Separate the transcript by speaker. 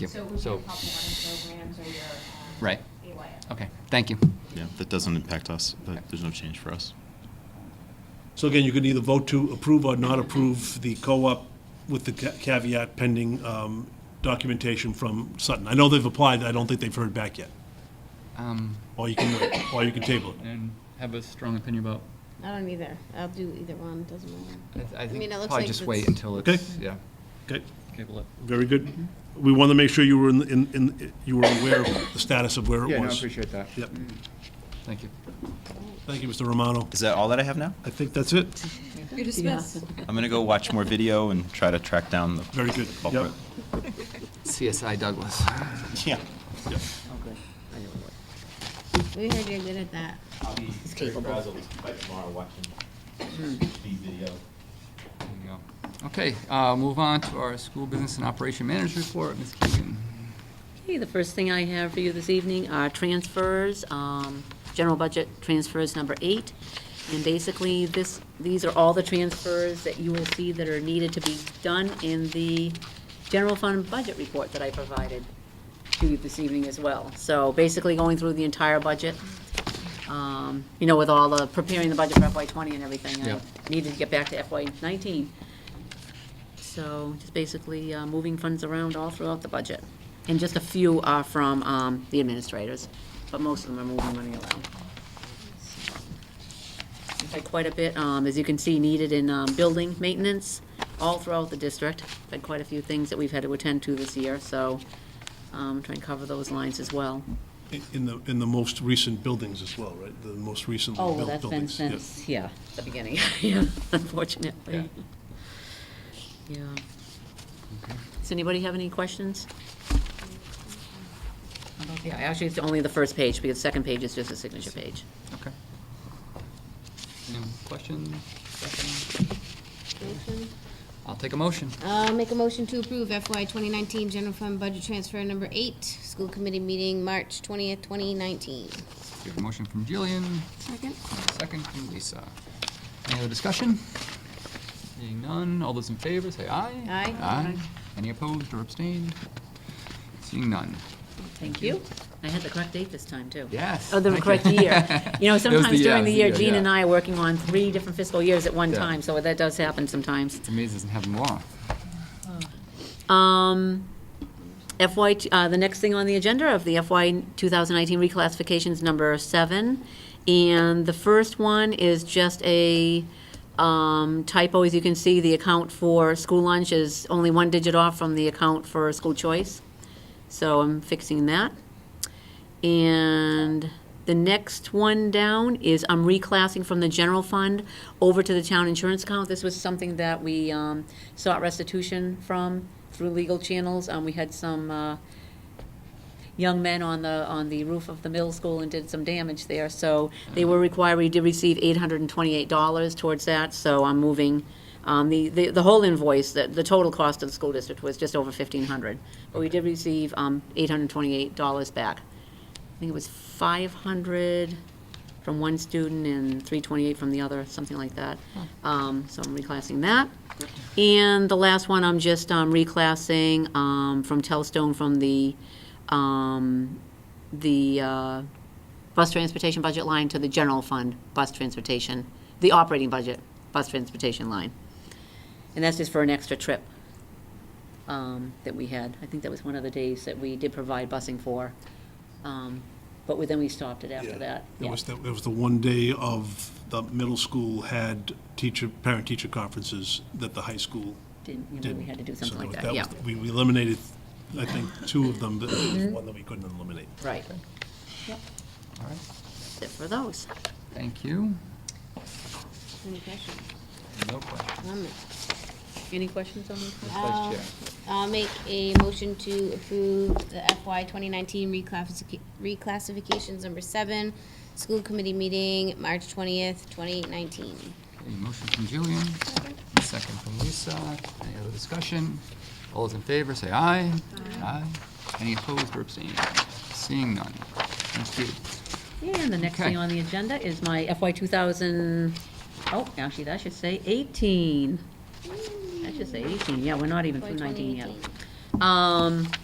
Speaker 1: you.
Speaker 2: So it would be
Speaker 1: So-
Speaker 2: your pop warning programs or your. um,
Speaker 1: Right.
Speaker 2: AYF.
Speaker 1: Okay, thank you.
Speaker 3: Yeah, that doesn't impact us, but there's no change for us.
Speaker 4: So again, you can either vote to approve or not approve the co-op with the ca- caveat pending um, documentation from Sutton. I know they've applied, I don't think they've heard back yet.
Speaker 1: Um,
Speaker 4: Or you can wait, or you can table it.
Speaker 1: And have a strong opinion about,
Speaker 5: I don't either. I'll do either one, doesn't matter.
Speaker 1: I th- I think,
Speaker 5: mean, it looks
Speaker 1: probably
Speaker 5: like
Speaker 1: just
Speaker 5: it's-
Speaker 1: wait until
Speaker 4: Okay.
Speaker 1: it's, yeah,
Speaker 4: Okay,
Speaker 1: cable it.
Speaker 4: very good. We wanted to make sure you were in, in- in, you were aware of the status of where it was.
Speaker 6: Yeah, no, I appreciate that.
Speaker 4: Yep.
Speaker 1: Thank you.
Speaker 4: Thank you, Mr. Romano.
Speaker 3: Is that all that I have now?
Speaker 4: I think that's it.
Speaker 7: You're dismissed.
Speaker 3: I'm going to go watch more video and try to track down the.
Speaker 4: Very good. Yep.
Speaker 3: culprit.
Speaker 1: CSI Douglas.
Speaker 3: Yeah.
Speaker 5: We heard you're good at that.
Speaker 3: I'll be
Speaker 5: capable.
Speaker 3: by tomorrow watching
Speaker 4: Hmm.
Speaker 3: the video.
Speaker 1: There you go. Okay, uh, move on to our school business and operation manager report, Ms. Keegan.
Speaker 8: Okay, the first thing I have for you this evening are transfers, um, general budget transfers number eight. And basically, this, these are all the transfers that you will see that are needed to be done in the general fund budget report that I provided to you this evening as well. So basically, going through the entire budget, um, you know, with all the, preparing the budget for FY twenty and everything.
Speaker 1: Yeah.
Speaker 8: I needed to get back to FY nineteen. So just basically uh, moving funds around all throughout the budget. And just a few are from um, the administrators, but most of them are moving money around. In fact, quite a bit, um, as you can see, needed in um, building maintenance all throughout the district. Had quite a few things that we've had to attend to this year, so um, try and cover those lines as well.
Speaker 4: In- In the, in the most recent buildings as well, right? The most recently
Speaker 8: Oh,
Speaker 4: built
Speaker 8: well, that's been
Speaker 4: buildings. Yeah.
Speaker 8: since, yeah, the beginning, yeah, unfortunately. Yeah.
Speaker 1: Mm-hmm.
Speaker 8: Does anybody have any questions? About the- Actually, it's only the first page, because the second page is just a signature page.
Speaker 1: Okay. Any questions?
Speaker 5: Motion?
Speaker 1: I'll take a motion.
Speaker 5: Uh, make a motion to approve FY 2019 general fund budget transfer number eight, school committee meeting, March 20th, 2019.
Speaker 1: We have a motion from Jillian,
Speaker 7: Second?
Speaker 1: and a second from Lisa. Any other discussion? Seeing none, all those in favor, say aye.
Speaker 5: Aye.
Speaker 1: Aye. Any opposed or abstained? Seeing none.
Speaker 8: Thank you. I had the correct date this time, too.
Speaker 1: Yes.
Speaker 8: Oh, the
Speaker 1: thank
Speaker 8: correct year. You
Speaker 1: It
Speaker 8: know,
Speaker 1: was
Speaker 8: sometimes during the year,
Speaker 1: it was
Speaker 8: Gene and
Speaker 1: yeah.
Speaker 8: I are working on three different fiscal years at one
Speaker 1: Yeah.
Speaker 8: time, so that does happen sometimes.
Speaker 1: It's amazing it doesn't happen more.
Speaker 8: Um, FY, t- uh, the next thing on the agenda of the FY 2019 reclassifications, number seven. And the first one is just a um, typo, as you can see, the account for school lunch is only one digit off from the account for school choice. So I'm fixing that. And the next one down is I'm reclassing from the general fund over to the town insurance account. This was something that we um, sought restitution from through legal channels. Um, We had some uh, young men on the, on the roof of the middle school and did some damage there. So they were required, we did receive $828 towards that, so I'm moving, um, the, the the whole invoice, the, the total cost of the school district was just over 1,500. But we did receive um, $828 back. I think it was 500 from one student and 328 from the other, something like that. Um, So I'm reclassing that. And the last one, I'm just um, reclassing um, from Telstone from the, um, the uh, bus transportation budget line to the general fund bus transportation, the operating budget bus transportation line. And that's just for an extra trip um, that we had. I think that was one of the days that we did provide busing for. Um, But we- then we stopped it after that.
Speaker 4: It
Speaker 8: Yeah.
Speaker 4: was, the- it was the one day of the middle school had teacher, parent-teacher conferences that the high school
Speaker 8: Didn't- you know,
Speaker 4: didn't.
Speaker 8: We had to do
Speaker 4: So
Speaker 8: something like
Speaker 4: was-
Speaker 8: that, yeah. Mm-hmm.
Speaker 4: was- We we eliminated, I think, two of them, but there was one that we couldn't eliminate.
Speaker 8: Right.
Speaker 1: All right,
Speaker 8: That's it for those.
Speaker 1: thank you.
Speaker 5: Any questions?
Speaker 1: No questions.
Speaker 5: Comments?
Speaker 8: Any questions on this?
Speaker 1: Vice Chair.
Speaker 5: Uh, I'll make a motion to approve the FY 2019 reclassific- reclassifications number seven, school committee meeting, March 20th, 2019.
Speaker 1: Okay, motion from Jillian, and a second from Lisa. Any other discussion? All those in favor, say aye. Aye. Any opposed or abstained? Seeing none. Thank you.
Speaker 8: And the next
Speaker 1: Okay.
Speaker 8: thing on the agenda is my FY 2000, oh, actually, that should say 18. That should say 18, yeah, we're not even
Speaker 5: FY
Speaker 8: through 19 yet.
Speaker 5: 2018.
Speaker 8: Um,